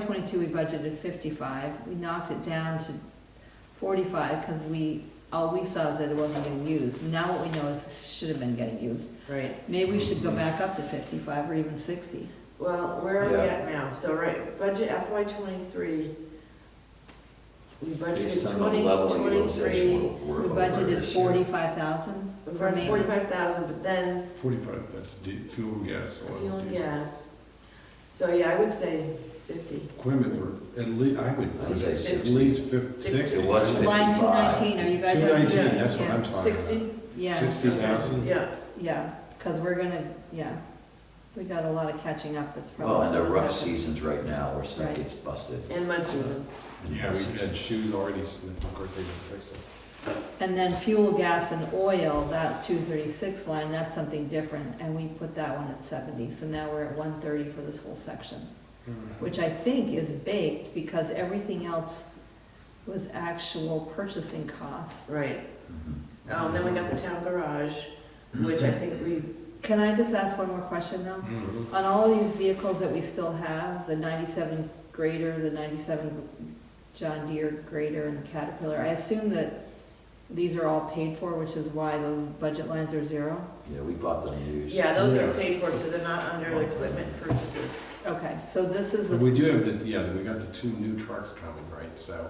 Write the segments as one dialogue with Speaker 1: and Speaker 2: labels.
Speaker 1: 2022, we budgeted 55, we knocked it down to 45 because we, all we saw is that it wasn't getting used. Now what we know is it should have been getting used.
Speaker 2: Right,
Speaker 1: Maybe we should go back up to 55 or even 60.
Speaker 2: well, where are we
Speaker 3: Yeah.
Speaker 2: at now? So, right, budget FY twenty-three, we budgeted
Speaker 3: Based on the
Speaker 2: twenty,
Speaker 3: level of
Speaker 2: twenty-three,
Speaker 3: utilization
Speaker 1: We
Speaker 3: we're, we're over
Speaker 1: budgeted
Speaker 3: this year.
Speaker 1: 45,000 for maintenance.
Speaker 2: forty-five thousand, but then
Speaker 4: Forty-five, that's di- fuel, gas,
Speaker 2: fuel
Speaker 4: oil,
Speaker 2: and
Speaker 4: diesel.
Speaker 2: gas. So, yeah, I would say fifty.
Speaker 4: Equipment, were at least, I would,
Speaker 3: I'd say
Speaker 4: at
Speaker 3: 60.
Speaker 4: least fifty, sixty.
Speaker 2: Sixty.
Speaker 3: It was
Speaker 1: Line
Speaker 3: 55.
Speaker 1: 219, are you guys?
Speaker 4: Two
Speaker 1: up to
Speaker 4: nineteen,
Speaker 1: date?
Speaker 2: yeah,
Speaker 4: that's what I'm talking about.
Speaker 2: Sixty?
Speaker 1: Yeah,
Speaker 4: Sixty thousand?
Speaker 2: Yeah,
Speaker 1: yeah, because we're gonna, yeah, we got a lot of catching up that's probably.
Speaker 3: Well, and the
Speaker 1: still
Speaker 3: rough
Speaker 1: happening.
Speaker 3: seasons right now where stuff
Speaker 1: Right.
Speaker 3: gets busted.
Speaker 2: and mud season.
Speaker 4: Yeah, we had shoes already, so of course they didn't fix it.
Speaker 1: And then fuel, gas, and oil, that two thirty-six line, that's something different, and we put that one at seventy, so now we're at one thirty for this whole section, Mm-hmm. which I think is baked, because everything else was actual purchasing costs.
Speaker 2: Right,
Speaker 3: Mhm.
Speaker 2: um, then we got the town garage, which I think we,
Speaker 1: Can I just ask one more question, though?
Speaker 4: Mhm.
Speaker 1: On all of these vehicles that we still have, the ninety-seven grader, the ninety-seven John Deere grader, and the Caterpillar, I assume that these are all paid for, which is why those budget lines are zero?
Speaker 3: Yeah, we bought them used.
Speaker 2: yeah, those are paid for, so they're not under equipment purchases.
Speaker 1: Okay, so this is,
Speaker 4: But
Speaker 1: a-
Speaker 4: we do have the, yeah, we got the two new trucks coming, right, so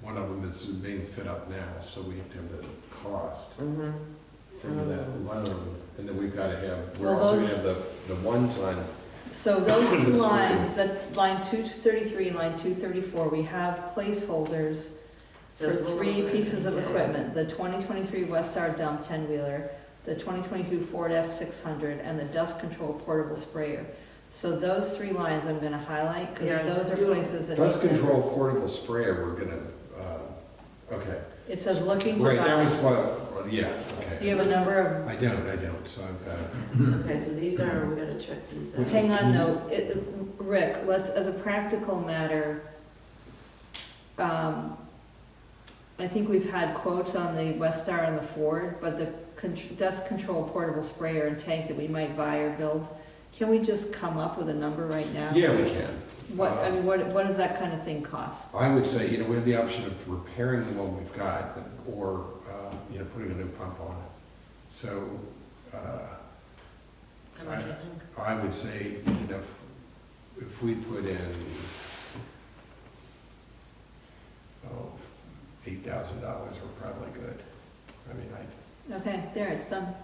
Speaker 4: one of them is being fit up now, so we have to have the cost
Speaker 2: Mm-hmm.
Speaker 4: from that loan. And then we've gotta have, we're
Speaker 1: Well,
Speaker 4: also
Speaker 1: those-
Speaker 4: gonna have the, the one ton,
Speaker 1: so those two
Speaker 4: This is-
Speaker 1: lines, that's line two thirty-three, line two thirty-four, we have placeholders for three pieces of equipment, the twenty twenty-three Westar dump ten-wheeler, the twenty twenty-two Ford F six hundred, and the dust control portable sprayer. So those three lines I'm gonna highlight, cause
Speaker 2: Yeah,
Speaker 1: those are
Speaker 2: you-
Speaker 1: places that.
Speaker 4: dust control portable sprayer, we're gonna, uh, okay.
Speaker 1: It says looking to
Speaker 4: Right, that was
Speaker 1: buy.
Speaker 4: what, yeah, okay.
Speaker 1: Do you have a number of,
Speaker 4: I don't, I don't, so uh, I've got,
Speaker 2: Okay, so these are, we gotta check these out.
Speaker 1: hang on though, it, Rick, let's, as a practical matter, um, I think we've had quotes on the Westar and the Ford, but the con- dust control portable sprayer and tank that we might buy or build, can we just come up with a number right now?
Speaker 4: yeah, we can.
Speaker 1: What, I mean, what, what does that kind of thing cost?
Speaker 4: I would say, you know, we have the option of repairing the one we've got, or, uh, you know, putting a new pump on it. So, uh,
Speaker 2: How much, I think?
Speaker 4: I would say, you know, if- if we put in, oh, eight thousand dollars, we're probably good. I mean, I,
Speaker 1: Okay, there, it's done.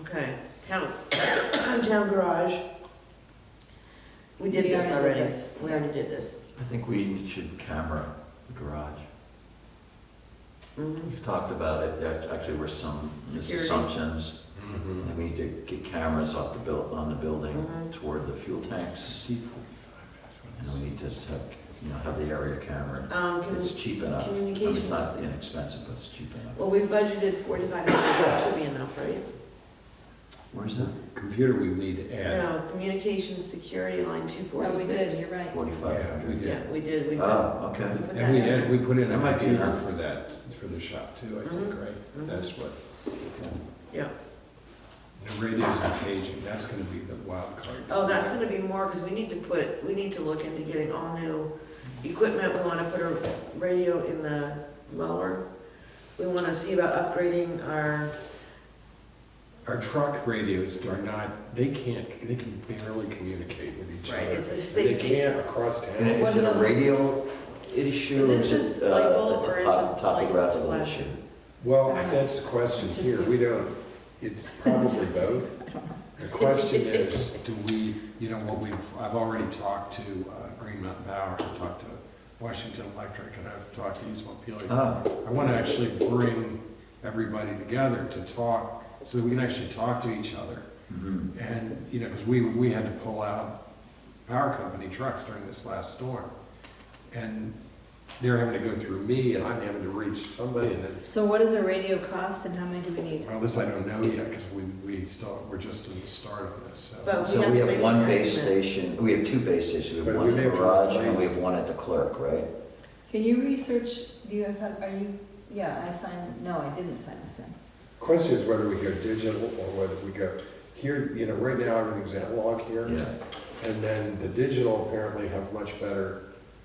Speaker 2: Okay, town, town garage. We did
Speaker 1: We already
Speaker 2: this
Speaker 1: did
Speaker 2: already,
Speaker 1: this.
Speaker 2: we already did this.
Speaker 3: I think we should camera the garage.
Speaker 2: Mhm.
Speaker 3: We've talked about it, there actually were some
Speaker 2: Security. Mm-hmm.
Speaker 3: misassumptions.
Speaker 4: mhm.
Speaker 3: And we need to get cameras off the buil, on the building
Speaker 2: Mhm.
Speaker 3: toward the fuel tanks.
Speaker 4: Steve, forty-five,
Speaker 3: And
Speaker 4: that's what
Speaker 3: we
Speaker 4: it
Speaker 3: need to have, you know, have the area camera.
Speaker 2: Um, can-
Speaker 3: It's cheap enough. I mean, It's
Speaker 2: Communications.
Speaker 3: not inexpensive, but it's cheap enough.
Speaker 2: well, we've budgeted forty-five hundred, that should be enough, right?
Speaker 3: Where's that?
Speaker 4: is. Computer we need to add.
Speaker 2: No, communications security line two
Speaker 1: Oh, we did,
Speaker 2: forty-six.
Speaker 1: you're right.
Speaker 3: Forty-five
Speaker 4: Yeah, we
Speaker 3: hundred?
Speaker 4: did.
Speaker 2: Yeah, we did, we put.
Speaker 3: Oh, okay.
Speaker 2: we put
Speaker 4: Ah, And we
Speaker 2: that in.
Speaker 4: had, we put in a
Speaker 3: That might be
Speaker 4: computer
Speaker 3: enough.
Speaker 4: for that, for the shop too, I think, right?
Speaker 2: mhm.
Speaker 4: That's what,
Speaker 3: okay.
Speaker 2: Yeah,
Speaker 4: the radios and paging, that's gonna be the wild card.
Speaker 2: oh, that's gonna be more, because we need to put, we need to look into getting all new equipment, we wanna put a radio in the mower. We wanna see about upgrading our
Speaker 4: Our truck radios are not, they can't, they can barely communicate with each other.
Speaker 2: Right, it's a
Speaker 4: They
Speaker 2: safety.
Speaker 4: can't across
Speaker 3: And
Speaker 4: town.
Speaker 1: What
Speaker 3: is it
Speaker 1: are
Speaker 3: a
Speaker 1: those-
Speaker 3: radio issue or
Speaker 2: Is
Speaker 3: is
Speaker 2: it
Speaker 3: it
Speaker 2: just
Speaker 3: uh,
Speaker 2: light bulb
Speaker 3: a
Speaker 2: or is
Speaker 3: topo-
Speaker 2: it like
Speaker 3: topographical
Speaker 2: flash?
Speaker 3: issue?
Speaker 4: Well, that's the question
Speaker 1: It's just-
Speaker 4: here, we don't, it's probably both. The question is, do we, you know, what we've, I've already talked to uh, Green Mountain Power, I've talked to Washington Electric, and I've talked to East Montpelier.
Speaker 3: Oh,
Speaker 4: I want to actually bring everybody together to talk, so that we can actually talk to each other.
Speaker 2: Mm-hmm.
Speaker 3: mhm.
Speaker 4: And, you know, because we, we had to pull out power company trucks during this last storm. And they're having to go through me, and I'm having to reach somebody, and this,
Speaker 1: So what does a radio cost and how many do we need?
Speaker 4: well, this I don't know yet, because we, we still, we're just in the start of this, so.
Speaker 2: But we
Speaker 3: So
Speaker 2: have
Speaker 3: we
Speaker 2: to make
Speaker 3: have
Speaker 2: an
Speaker 3: one base
Speaker 2: estimate.
Speaker 3: station, we have two base stations, we
Speaker 4: But
Speaker 3: have
Speaker 4: we
Speaker 3: one in
Speaker 4: may
Speaker 3: the
Speaker 4: have to
Speaker 3: garage and we
Speaker 4: replace-
Speaker 3: have one at the clerk, right?
Speaker 1: Can you research, do you have, are you, yeah, I signed, no, I didn't sign this in.
Speaker 4: Question is whether we go digital or whether we go, here, you know, right now, everything's analog here.
Speaker 3: Yeah,
Speaker 4: And then the digital apparently have much better